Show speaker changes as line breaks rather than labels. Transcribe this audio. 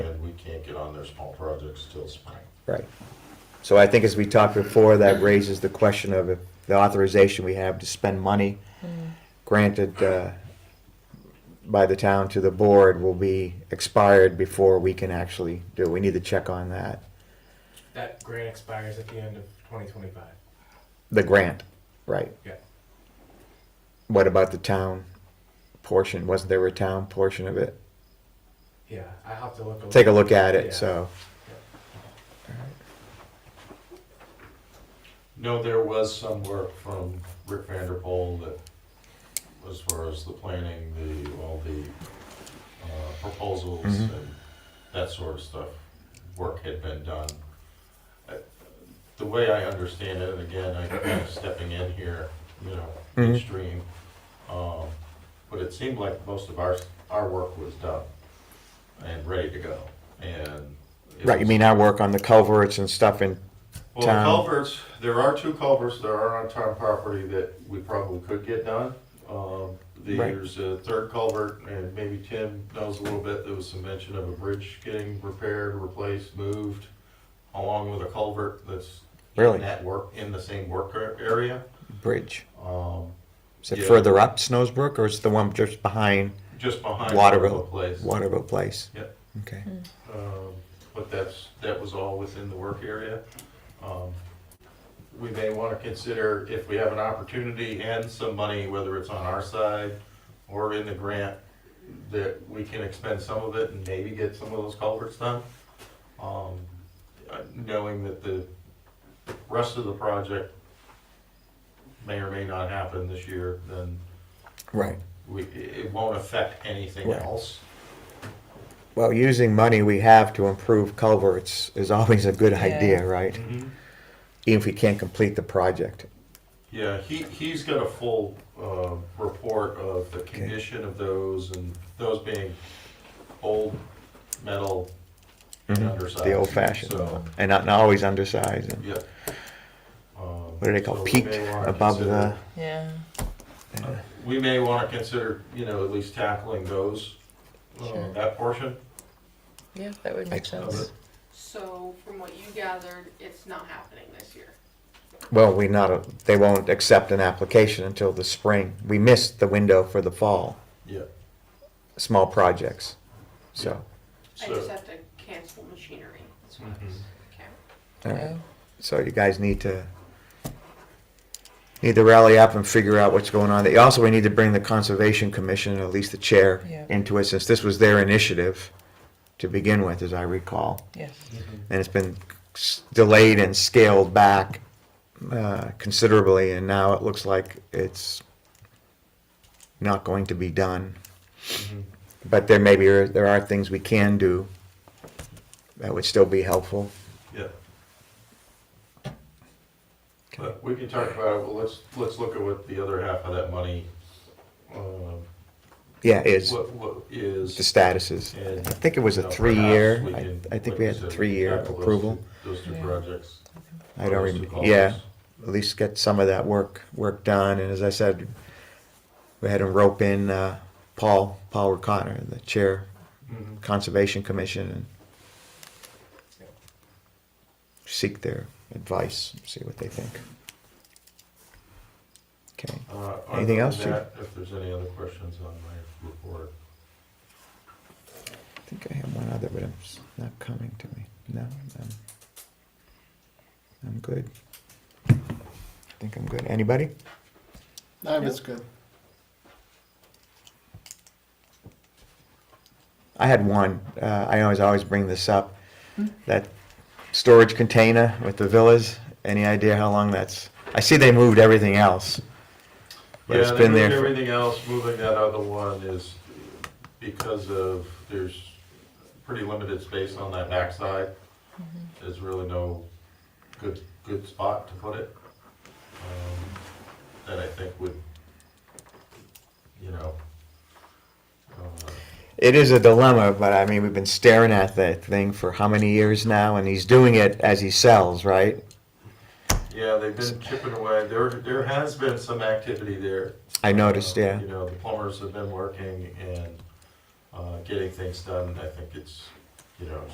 can't get on their small projects till spring.
Right. So I think as we talked before, that raises the question of if the authorization we have to spend money granted uh, by the town to the board will be expired before we can actually do. it. We need to check on that,
That grant expires at the end of 2025.
the grant, right?
Yeah.
What about the town portion? Wasn't there a town portion of it?
Yeah, I have to look.
Take a look at
Yeah.
it, so.
No, there was some work from Rick Vanderpool that, as far as the planning, the, all the uh, proposals
Mhm.
and that sort of stuff, work had been done. I- The way I understand it, and again, I'm kind of stepping in here, you know,
Mhm.
midstream, um, but it seemed like most of our, our work was done and ready to go, and. it
Right, you
was-
mean I work on the culverts and stuff and,
well,
town.
the culverts, there are two culverts that are on town property that we probably could get done. Um, the-
Right.
There's a third culvert, and maybe Tim knows a little bit, there was some mention of a bridge getting repaired, replaced, moved, along with a culvert that's
Really?
in that work, in the same work ar- area.
bridge?
Um,
Is it
Yeah.
further up Snowsbrook or is it the one just behind
Just behind
Waterville.
Waterville Place.
Waterville Place?
Yep.
Okay.
Um, But that's, that was all within the work area. Um, We may want to consider if we have an opportunity and some money, whether it's on our side or in the grant, that we can expend some of it and maybe get some of those culverts done. Um, uh, Knowing that the rest of the project may or may not happen this year, then
Right.
we, it won't affect anything
Right.
else.
Well, using money we have to improve culverts is always a good
Yeah.
idea, right? Even if we can't complete the project.
Yeah, he, he's got a full, uh, report of the condition of those and those being old metal and
Mhm.
undersized.
The old fashioned,
So,
and not, not always undersized. and-
yeah. Um, What
do they call, peaked above the-
Yeah.
We may wanna consider, you know, at least tackling those, uh,
Sure.
that portion
Yeah, that would make
of
sense.
it.
So from what you gathered, it's not happening this year.
Well, we not, they won't accept an application until the spring. We missed the window for the fall,
Yeah,
small projects. So,
I just
so,
have to cancel machinery. That's what I was, okay.
all right.
Yeah.
So you guys need to need to rally up and figure out what's going on. They- Also, we need to bring the Conservation Commission, at least the chair,
Yeah.
into it, since this was their initiative to begin with, as I recall.
Yes.
And it's been s- delayed and scaled back uh, considerably, and now it looks like it's not going to be done.
Mhm.
But there may be, there are things we can do that would still be helpful.
yeah. But we can talk about, it, well, let's, let's look at what the other half of that money, uh,
Yeah, is.
What, what is?
the statuses.
and,
I think it was
you
a
know,
three-year,
perhaps we
I,
can,
I think
like
we
you
had a
said,
three-year
tackle those
approval.
two- Those two
Yeah.
projects.
I don't
those two
remember, yeah,
columns.
at least get some of that work, work done, and as I said, we had to rope in, uh, Paul, Paul O'Connor, the chair,
Mm-hmm.
Mhm.
Conservation Commission, and seek their advice, see what they think. Okay,
Uh, other
Anything
than
else, Chief?
that, If there's any other questions on my report.
I think I have one other, but it's not coming to me, no, I'm, I'm good. I think I'm good, anybody?
No, it's good.
I had one. Uh, I always always bring this up. That storage container with the villas. Any idea how long that's? I see they moved everything else. But
Yeah,
it's
they
been
moved
there for-
Everything else, moving that other one is because of, there's pretty limited space on that backside. There's really no good, good spot to put it. um, That I think would, you know, uh,
It is a dilemma, but I mean, we've been staring at that thing for how many years now, and he's doing it as he sells, right?
Yeah, they've been chipping away. There, there has been some activity there.
I noticed.
Uh,
Yeah.
You know, the plumbers have been working and, uh, getting things done. I think it's, you know,